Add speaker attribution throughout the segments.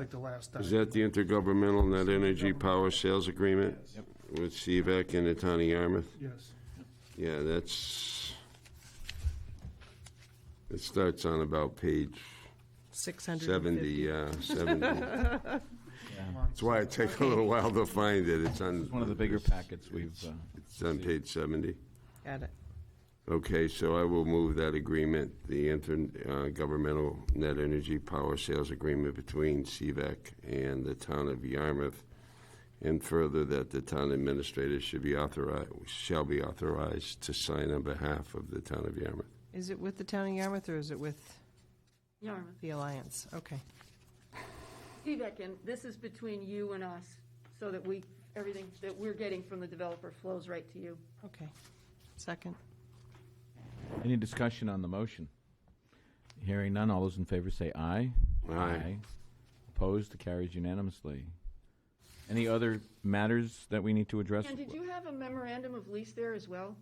Speaker 1: like the last time.
Speaker 2: Is that the intergovernmental net energy power sales agreement
Speaker 1: Yes.
Speaker 2: with CVAC and the town of Yarmouth?
Speaker 1: Yes.
Speaker 2: Yeah, that's, it starts on about page
Speaker 3: 650.
Speaker 2: 70, yeah, 70. That's
Speaker 1: on.
Speaker 2: why it took a little while to find it. It's on.
Speaker 4: It's one of the bigger packets we've, uh,
Speaker 2: It's on page 70.
Speaker 3: Got it.
Speaker 2: Okay, so I will move that agreement, the intergovernmental net energy power sales agreement between CVAC and the town of Yarmouth, and further that the town administrator should be authorized, shall be authorized to sign on behalf of the town of Yarmouth.
Speaker 3: Is it with the town of Yarmouth or is it with
Speaker 5: Yarmouth.
Speaker 3: the Alliance? Okay.
Speaker 5: Feedback, and this is between you and us, so that we, everything that we're getting from the developer flows right to you.
Speaker 3: Okay. Second.
Speaker 4: any discussion on the motion? Hearing none, all those in favor say aye.
Speaker 2: Aye.
Speaker 4: Opposed, carries unanimously. Any other matters that we need to address?
Speaker 5: And did you have a memorandum of lease there as well?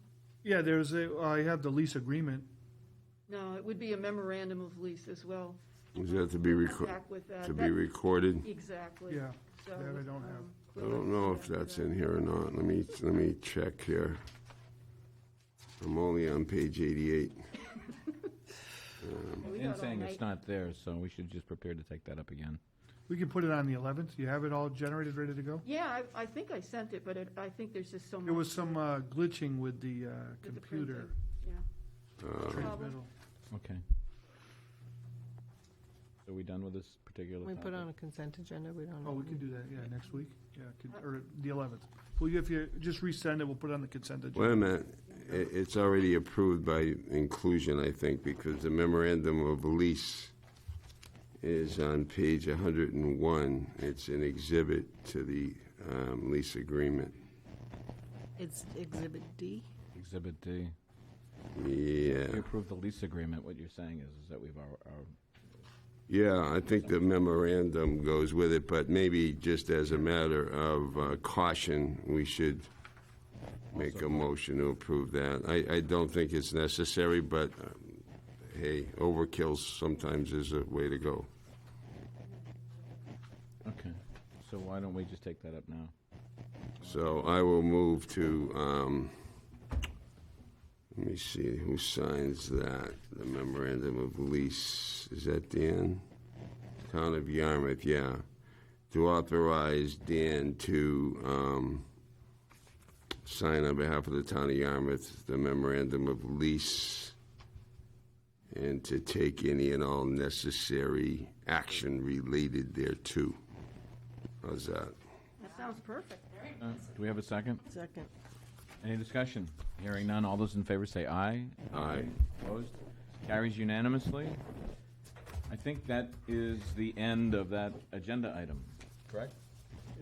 Speaker 1: Yeah, there's a, I have the lease agreement.
Speaker 5: No, it would be a memorandum of lease as well,
Speaker 2: Is that to be recorded,
Speaker 5: back with that.
Speaker 2: to be
Speaker 5: That-
Speaker 2: recorded?
Speaker 5: Exactly.
Speaker 1: Yeah,
Speaker 5: So,
Speaker 1: that I don't have.
Speaker 5: um,
Speaker 2: I
Speaker 5: we'll
Speaker 2: don't know if
Speaker 5: see that.
Speaker 2: that's in here or not. Let me, let me check here. I'm only on page 88.
Speaker 5: We
Speaker 4: In
Speaker 5: got all
Speaker 4: saying
Speaker 5: night.
Speaker 4: it's not there, so we should just prepare to take that up again.
Speaker 1: We can put it on the 11th. You have it all generated, ready to go?
Speaker 5: Yeah, I, I think I sent it, but it- I think there's just so much.
Speaker 1: There was some uh, glitching with the uh,
Speaker 5: with the
Speaker 1: computer
Speaker 5: printing.
Speaker 2: Uh,
Speaker 1: transmittal.
Speaker 4: Okay. So we done with this particular
Speaker 3: We
Speaker 4: topic?
Speaker 3: put on a consent agenda. We don't.
Speaker 1: Oh, we can do that, yeah, next week, yeah, could-
Speaker 5: Uh,
Speaker 1: or the 11th. Well, if you just resend it, we'll put it on the consent
Speaker 2: Wait
Speaker 1: agenda.
Speaker 2: a minute, I- it's already approved by inclusion, I think, because the memorandum of lease is on page 101. It's an exhibit to the um, lease agreement.
Speaker 3: It's Exhibit D.
Speaker 4: Exhibit D. We
Speaker 2: Yeah,
Speaker 4: approved the lease agreement. What you're saying is, is that we've our, our
Speaker 2: yeah, I think the memorandum goes with it, but maybe just as a matter of uh, caution, we should make a motion to approve that. I, I don't think it's necessary, but um, hey, overkill sometimes is a way to go.
Speaker 4: Okay, so why don't we just take that up now?
Speaker 2: So I will move to, um, let me see, who signs that? The memorandum of lease, is that Dan? Town of Yarmouth, yeah. To authorize Dan to, um, sign on behalf of the town of Yarmouth, the memorandum of lease, and to take any and all necessary action related thereto. How's that?
Speaker 5: That sounds perfect.
Speaker 4: Uh, Do we have a second?
Speaker 3: Second.
Speaker 4: Any discussion? Hearing none, all those in favor say aye.
Speaker 2: Aye.
Speaker 4: Opposed? Carries unanimously. I think that is the end of that agenda item. Correct.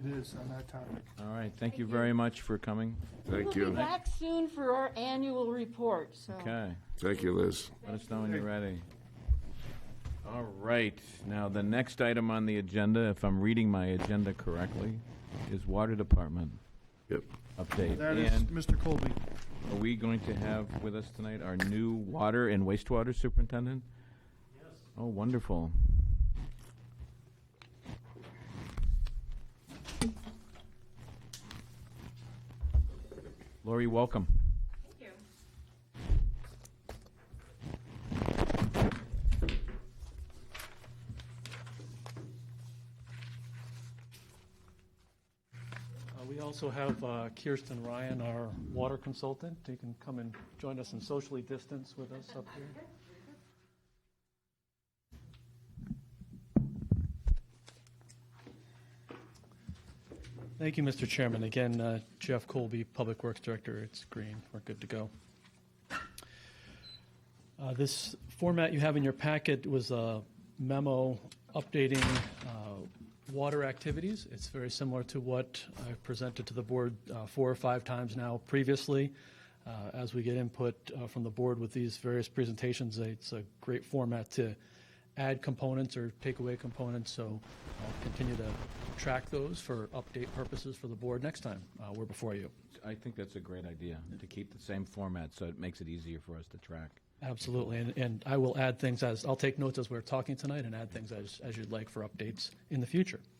Speaker 1: It is on that topic.
Speaker 4: All right, thank you very much for coming.
Speaker 2: Thank
Speaker 5: We'll be
Speaker 2: you.
Speaker 5: back soon for our annual report, so.
Speaker 4: Okay,
Speaker 2: Thank you, Liz.
Speaker 4: let us know when you're ready. All right, now the next item on the agenda, if I'm reading my agenda correctly, is Water Department
Speaker 2: Yep.
Speaker 4: update.
Speaker 1: That is
Speaker 4: And-
Speaker 1: Mr. Colby.
Speaker 4: Are we going to have with us tonight our new water and wastewater superintendent? Yes. Oh, wonderful. Lori, welcome.
Speaker 6: Uh, We also have uh, Kirsten Ryan, our water consultant, who can come and join us and socially distance with us up here. Thank you, Mr. Chairman. Again, uh, Jeff Colby, Public Works Director. It's green. We're good to go. Uh, This format you have in your packet was a memo updating uh, water activities. It's very similar to what I've presented to the board uh, four or five times now previously. Uh, As we get input uh, from the board with these various presentations, it's a great format to add components or take away components, so I'll continue to track those for update purposes for the board next time uh, we're before you.
Speaker 4: I think that's a great idea, to keep the same format, so it makes it easier for us to track.
Speaker 6: Absolutely, and, and I will add things as, I'll take notes as we're talking tonight and add things as, as you'd like for updates in the future.